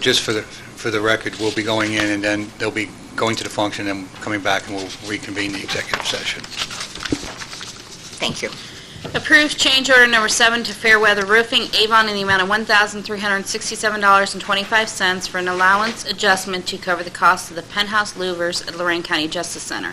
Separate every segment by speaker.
Speaker 1: Just for the, for the record, we'll be going in, and then they'll be going to the function and coming back, and we'll reconvene the executive session.
Speaker 2: Thank you.
Speaker 3: Approved change order number seven to Fairweather Roofing Avon in the amount of $1,367.25 for an allowance adjustment to cover the cost of the penthouse louvers at Lorraine County Justice Center.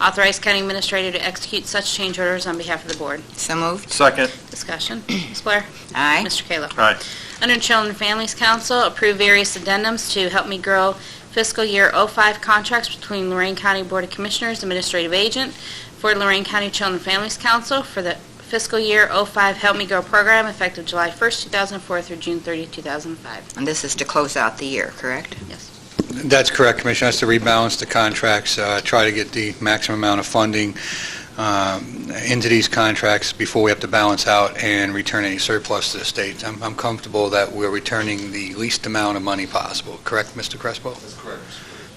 Speaker 3: Authorize county administrator to execute such change orders on behalf of the board.
Speaker 2: So moved.
Speaker 4: Second.
Speaker 3: Discussion. Ms. Blair?
Speaker 2: Aye.
Speaker 3: Mr. Kayla?
Speaker 4: Aye.
Speaker 3: Under Children and Families Council, approve various addendums to Help Me Grow fiscal year '05 contracts between Lorraine County Board of Commissioners Administrative Agent for Lorraine County Children and Families Council for the fiscal year '05 Help Me Grow program effective July 1st, 2004 through June 30th, 2005.
Speaker 2: And this is to close out the year, correct?
Speaker 1: That's correct, Commissioner. That's to rebalance the contracts, uh, try to get the maximum amount of funding um, into these contracts before we have to balance out and return any surplus to the state. I'm I'm comfortable that we're returning the least amount of money possible, correct, Mr. Crespo? That's correct.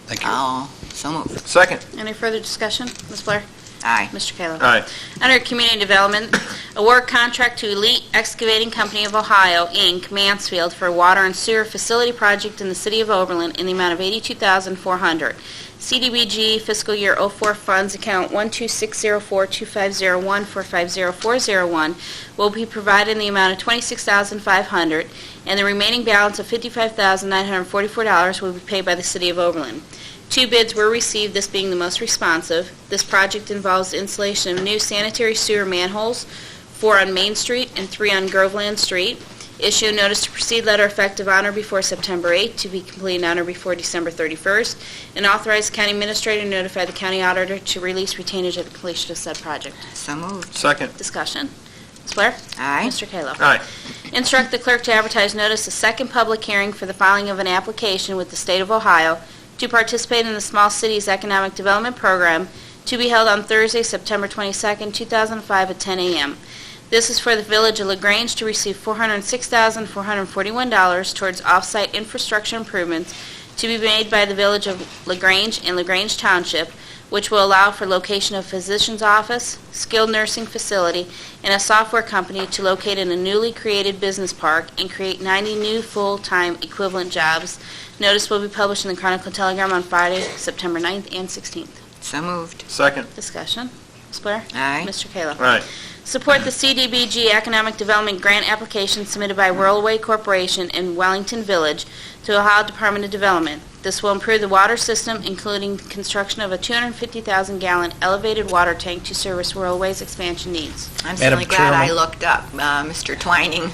Speaker 1: Thank you.
Speaker 2: Oh, so moved.
Speaker 4: Second.
Speaker 3: Any further discussion? Ms. Blair?
Speaker 2: Aye.
Speaker 3: Mr. Kayla?
Speaker 4: Aye.
Speaker 3: Under Community Development, award contract to Elite Excavating Company of Ohio, Inc., Mansfield, for a water and sewer facility project in the city of Oberlin in the amount of $82,400. CDBG fiscal year '04 funds account 126042501450401 will be provided in the amount of $26,500, and the remaining balance of $55,944 will be paid by the city of Oberlin. Two bids were received, this being the most responsive. This project involves the installation of new sanitary sewer manholes, four on Main Street and three on Groveland Street. Issue a notice to proceed letter effective honor before September 8th, to be completed honor before December 31st, and authorize county administrator to notify the county auditor to release retainage at the completion of said project.
Speaker 2: So moved.
Speaker 4: Second.
Speaker 3: Discussion. Ms. Blair?
Speaker 2: Aye.
Speaker 3: Mr. Kayla?
Speaker 4: Aye.
Speaker 3: Instruct the clerk to advertise notice of second public hearing for the filing of an application with the state of Ohio to participate in the Small Cities Economic Development Program to be held on Thursday, September 22nd, 2005 at 10 a.m. This is for the Village of LaGrange to receive $406,441 towards off-site infrastructure improvements to be made by the Village of LaGrange and LaGrange Township, which will allow for location of physician's office, skilled nursing facility, and a software company to locate in a newly created business park and create 90 new full-time equivalent jobs. Notice will be published in the Chronicle Telegram on Friday, September 9th and 16th.
Speaker 2: So moved.
Speaker 4: Second.
Speaker 3: Discussion. Ms. Blair?
Speaker 2: Aye.
Speaker 3: Mr. Kayla?
Speaker 4: Aye.
Speaker 3: Support the CDBG Economic Development Grant application submitted by Worldway Corporation in Wellington Village to Ohio Department of Development. This will improve the water system, including the construction of a 250,000-gallon elevated water tank to service Worldway's expansion needs.
Speaker 2: I'm
Speaker 5: Madam
Speaker 2: certainly glad I
Speaker 5: Chairman.
Speaker 2: looked up, uh, Mr. Twining.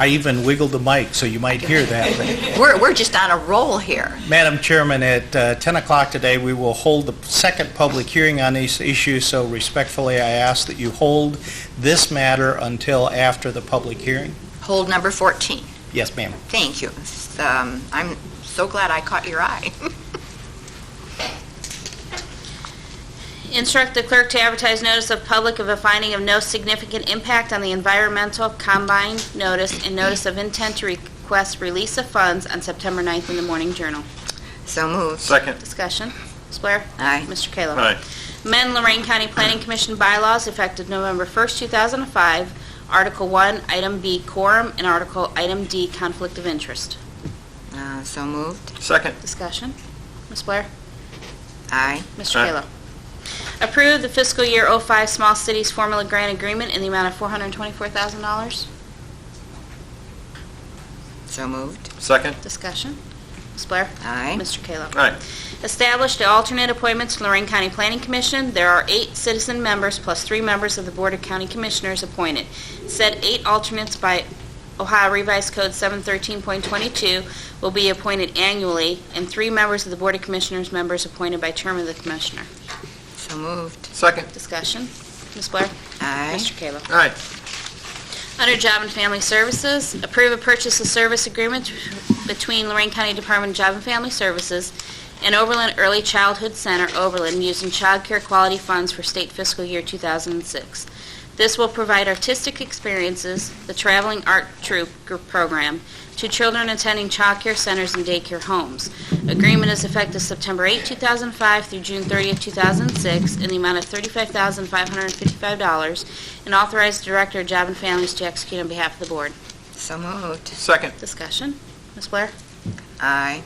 Speaker 5: I even wiggled the mic, so you might hear that.
Speaker 2: We're, we're just on a roll here.
Speaker 5: Madam Chairman, at uh, 10 o'clock today, we will hold the second public hearing on these issues, so respectfully, I ask that you hold this matter until after the public hearing.
Speaker 2: Hold number 14.
Speaker 5: Yes, ma'am.
Speaker 2: Thank you. S- um, I'm so glad I caught your eye.
Speaker 3: Instruct the clerk to advertise notice of public of a finding of no significant impact on the environmental combined notice and notice of intent to request release of funds on September 9th in the Morning Journal.
Speaker 2: So moved.
Speaker 4: Second.
Speaker 3: Discussion. Ms. Blair?
Speaker 2: Aye.
Speaker 3: Mr. Kayla?
Speaker 4: Aye.
Speaker 3: Amend Lorraine County Planning Commission bylaws effective November 1st, 2005, Article 1, Item B, quorum, and Article Item D, conflict of interest.
Speaker 2: Uh, So moved.
Speaker 4: Second.
Speaker 3: Discussion. Ms. Blair?
Speaker 2: Aye.
Speaker 3: Mr.
Speaker 4: Aye.
Speaker 3: Kayla. Approve the fiscal year '05 Small Cities Formula Grant Agreement in the amount of $424,000.
Speaker 2: So moved.
Speaker 4: Second.
Speaker 3: Discussion. Ms. Blair?
Speaker 2: Aye.
Speaker 3: Mr. Kayla.
Speaker 4: Aye.
Speaker 3: Establish the alternate appointments to Lorraine County Planning Commission. There are eight citizen members plus three members of the Board of County Commissioners appointed. Said eight alternates by Ohio Revised Code 713.22 will be appointed annually, and three members of the Board of Commissioners members appointed by term of the commissioner.
Speaker 2: So moved.
Speaker 4: Second.
Speaker 3: Discussion. Ms. Blair?
Speaker 2: Aye.
Speaker 3: Mr. Kayla.
Speaker 4: Aye.
Speaker 3: Under Job and Family Services, approve a purchase of service agreement between Lorraine County Department of Job and Family Services and Oberlin Early Childhood Center, Oberlin, using child care quality funds for state fiscal year 2006. This will provide artistic experiences, the traveling art troupe group program, to children attending child care centers and daycare homes. Agreement is effective September 8, 2005 through June 30, 2006, in the amount of $35,555 and authorize the Director of Job and Families to execute on behalf of the Board.
Speaker 2: So moved.
Speaker 4: Second.
Speaker 3: Discussion. Ms. Blair?
Speaker 2: Aye.